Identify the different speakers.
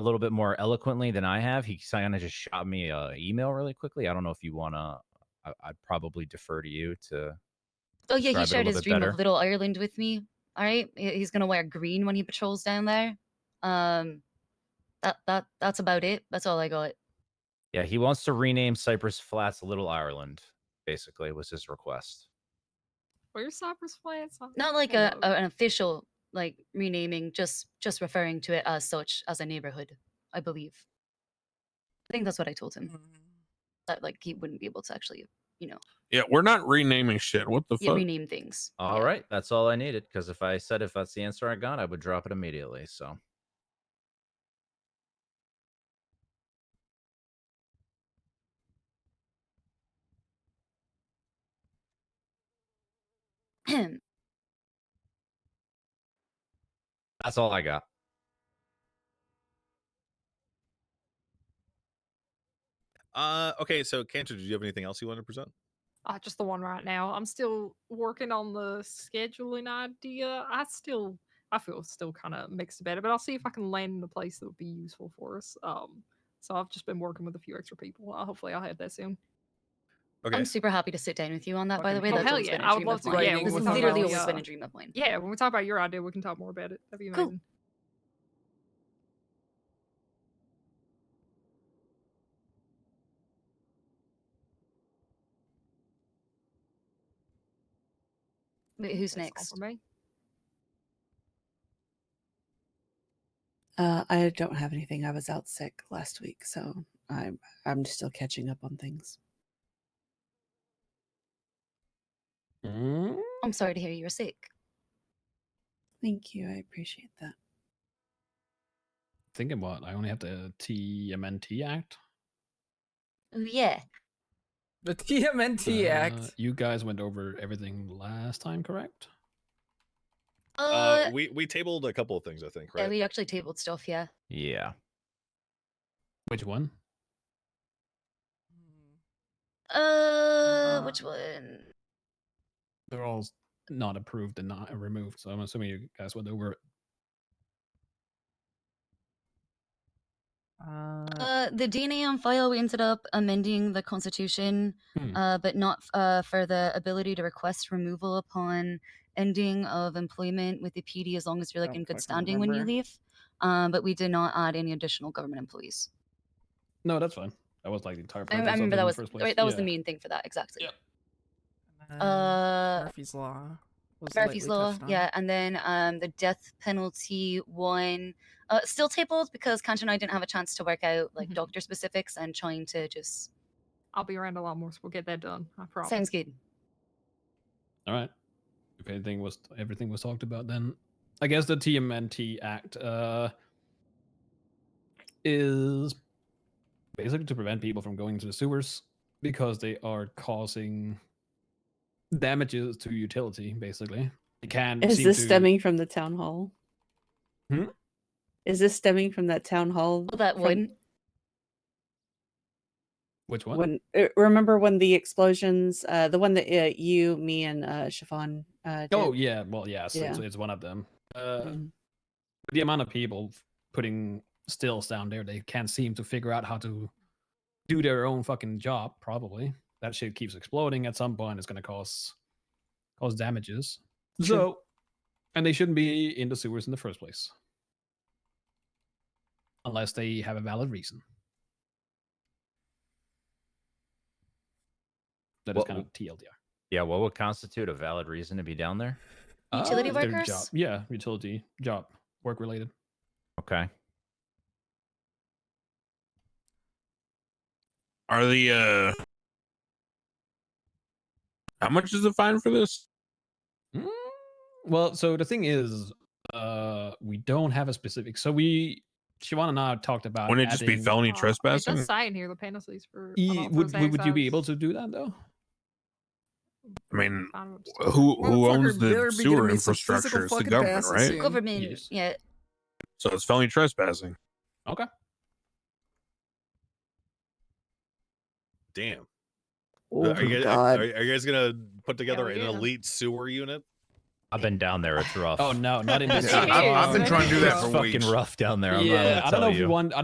Speaker 1: a little bit more eloquently than I have. He kind of just shot me a email really quickly. I don't know if you want to. I'd probably defer to you to.
Speaker 2: Oh yeah, he
Speaker 1: describe it a little
Speaker 2: shared his
Speaker 1: bit
Speaker 2: dream
Speaker 1: better.
Speaker 2: of Little Ireland with me. All right, He- he's gonna wear green when he patrols down there. Um, that that that's about it. That's all I got.
Speaker 1: Yeah, he wants to rename Cypress Flats Little Ireland. Basically, was his request.
Speaker 3: Where's Cypress Flats? I-
Speaker 2: Not like
Speaker 3: I
Speaker 2: a,
Speaker 3: don't know.
Speaker 2: a an official like renaming, just just referring to it as such as a neighborhood. I believe. I think that's what I told him. That like he wouldn't be able to actually
Speaker 4: Yeah, we're not renaming shit. What the
Speaker 2: yeah,
Speaker 4: fuck?
Speaker 2: rename things.
Speaker 1: All right, that's all I needed. Because if I said if that's the answer I got, I would drop it immediately. So
Speaker 2: right.
Speaker 1: that's all I got.
Speaker 5: Uh, okay, so Cantor, did you have anything else you wanted to present?
Speaker 3: Ah, just the one right now. I'm still working on the scheduling idea. I still, I feel still kind of mixed about it, but I'll see if I can land in a place that would be useful for us. Um, so I've just been working with a few extra people. Uh, hopefully, I'll have that soon.
Speaker 5: Okay,
Speaker 2: I'm super happy to sit down with you on that. By the way,
Speaker 3: Fucking-
Speaker 2: that's
Speaker 3: Oh, hell
Speaker 2: always been
Speaker 3: yeah, I
Speaker 2: a
Speaker 3: would
Speaker 2: dream
Speaker 3: love
Speaker 2: of
Speaker 3: to-
Speaker 2: mine.
Speaker 3: yeah,
Speaker 2: This
Speaker 3: we'll
Speaker 2: has
Speaker 3: talk
Speaker 2: literally
Speaker 3: about,
Speaker 2: always been
Speaker 3: uh,
Speaker 2: a dream of mine.
Speaker 3: Yeah, when we talk about your idea, we can talk more about it. That'd be
Speaker 2: Cool.
Speaker 3: amazing.
Speaker 2: Wait, who's
Speaker 3: That's
Speaker 2: next?
Speaker 3: all for me.
Speaker 6: Uh, I don't have anything. I was out sick last week, so I'm I'm just still catching up on things.
Speaker 4: Mm,
Speaker 2: I'm sorry to hear you were sick.
Speaker 6: Thank you. I appreciate that.
Speaker 7: Think about I only have the TMNT Act.
Speaker 2: Oh yeah.
Speaker 8: The TMNT
Speaker 7: Uh,
Speaker 8: Act.
Speaker 7: You guys went over everything last time, correct?
Speaker 2: Uh,
Speaker 5: uh, we we tabled a couple of things, I think,
Speaker 2: yeah,
Speaker 5: right?
Speaker 2: we actually tabled stuff. Yeah.
Speaker 1: Yeah.
Speaker 7: Which one?
Speaker 2: Uh, which
Speaker 8: Uh,
Speaker 2: one?
Speaker 7: They're all s- not approved and not removed. So I'm assuming you guys went over it.
Speaker 8: Uh,
Speaker 2: Uh, the DNA on file. We ended up amending the constitution,
Speaker 7: Hmm.
Speaker 2: uh, but not f- uh, for the ability to request removal upon ending of employment with the PD as long as you're like
Speaker 8: Don't
Speaker 2: in good
Speaker 8: fucking
Speaker 2: standing when you
Speaker 8: remember.
Speaker 2: leave. Um, but we did not add any additional government employees.
Speaker 7: No, that's fine. That was like the
Speaker 2: I,
Speaker 7: entire purpose
Speaker 2: I
Speaker 7: of
Speaker 2: remember
Speaker 7: it in
Speaker 2: that
Speaker 7: the
Speaker 2: was
Speaker 7: first place.
Speaker 2: right. That was the
Speaker 7: Yeah.
Speaker 2: main thing for that exactly.
Speaker 8: uh,
Speaker 2: Uh,
Speaker 8: Murphy's Law. Was
Speaker 2: Murphy's
Speaker 8: lightly
Speaker 2: Law,
Speaker 8: touched on.
Speaker 2: yeah, and then um, the death penalty one uh, still tabled because Kanch and I didn't have a chance to work out like
Speaker 3: Mhm.
Speaker 8: Mm-hmm.
Speaker 2: doctor specifics and trying to just
Speaker 3: I'll be around a lot more, so we'll get that done. I promise.
Speaker 2: sounds good.
Speaker 7: All right. If anything was everything was talked about, then I guess the TMNT Act uh, is basically to prevent people from going to the sewers because they are causing damages to utility. Basically, they can.
Speaker 6: Is
Speaker 7: seem
Speaker 6: this
Speaker 7: to-
Speaker 6: stemming from the town hall?
Speaker 7: Hmm?
Speaker 6: Is this stemming from that town hall?
Speaker 2: Well, that
Speaker 6: from
Speaker 2: one.
Speaker 7: Which one?
Speaker 6: When uh, remember when the explosions, uh, the one that uh, you, me, and uh, Chiffon. Uh, did?
Speaker 7: oh yeah, well yeah, it's, it's,
Speaker 6: Yeah.
Speaker 7: it's one of them. Uh,
Speaker 6: Mm.
Speaker 7: the amount of people f- putting stills down there, they can't seem to figure out how to do their own fucking job. Probably that shit keeps exploding. At some point, it's gonna cause cause damages.
Speaker 6: True.
Speaker 7: So, and they shouldn't be in the sewers in the first place, unless they have a valid reason. That is
Speaker 1: What
Speaker 7: kind
Speaker 1: w-
Speaker 7: of TLDR.
Speaker 1: Yeah. What would constitute a valid reason to be down there?
Speaker 2: Utility
Speaker 7: their
Speaker 2: workers?
Speaker 7: job- Yeah, utility job, work related.
Speaker 1: Okay.
Speaker 4: Are the uh How much is the fine for this?
Speaker 7: Mm, Well, so the thing is, uh, we don't have a specific. So we, Siobhan and I talked about.
Speaker 4: Wouldn't it just be
Speaker 7: adding-
Speaker 4: felony
Speaker 3: Uh, It
Speaker 4: trespassing?
Speaker 3: does say in here the penalties for.
Speaker 7: E- would, would, would you be able
Speaker 3: unauthorized
Speaker 7: to do that though?
Speaker 4: I mean,
Speaker 3: access. I don't know, just-
Speaker 4: Who who owns
Speaker 8: uh, Motherfucker
Speaker 4: the
Speaker 8: better be giving
Speaker 4: sewer
Speaker 8: me some physical
Speaker 4: infrastructure? It's the
Speaker 8: fucking
Speaker 4: government,
Speaker 8: passes
Speaker 4: right?
Speaker 8: soon.
Speaker 2: Government,
Speaker 7: Yes.
Speaker 2: yeah.
Speaker 4: So it's felony trespassing.
Speaker 7: Okay.
Speaker 5: Damn.
Speaker 6: Oh
Speaker 5: are, you
Speaker 6: my
Speaker 7: Uh,
Speaker 5: guys,
Speaker 6: Oh, god!
Speaker 5: Are, are you guys gonna put together
Speaker 3: we're
Speaker 5: an
Speaker 3: doing 'em.
Speaker 5: elite sewer unit?
Speaker 1: I've been down there. It's rough.
Speaker 7: Oh no, not in this.
Speaker 5: Yeah, I- I've, I've been
Speaker 3: Jeez.
Speaker 5: trying to do that
Speaker 1: It's
Speaker 5: for
Speaker 1: fucking
Speaker 5: weeks.
Speaker 1: rough down there. I'm not
Speaker 7: yeah,
Speaker 1: gonna
Speaker 7: I don't
Speaker 1: tell
Speaker 7: know if you want.